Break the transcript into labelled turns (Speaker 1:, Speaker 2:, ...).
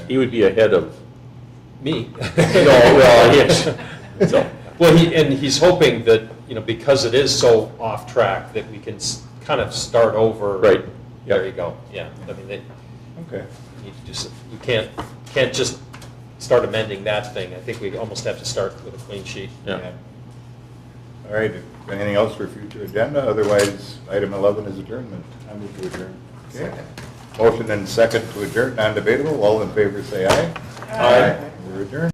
Speaker 1: he would be ahead of
Speaker 2: Me.
Speaker 1: No, well, yes. So-
Speaker 2: Well, he, and he's hoping that, you know, because it is so off track, that we can s- kind of start over.
Speaker 1: Right.
Speaker 2: There
Speaker 1: Yep.
Speaker 2: you go, yeah. I mean, they
Speaker 3: Okay.
Speaker 2: need to do some, we can't, can't just start amending that thing. I think we almost have to start with a clean sheet.
Speaker 1: Yeah.
Speaker 3: All right, if- anything else for future agenda? Otherwise, item 11 is adjournment. I move to adjourn. Okay. Motion and second to adjourn, non-debatable. All in favor, say aye.
Speaker 2: Aye.
Speaker 3: We're adjourned.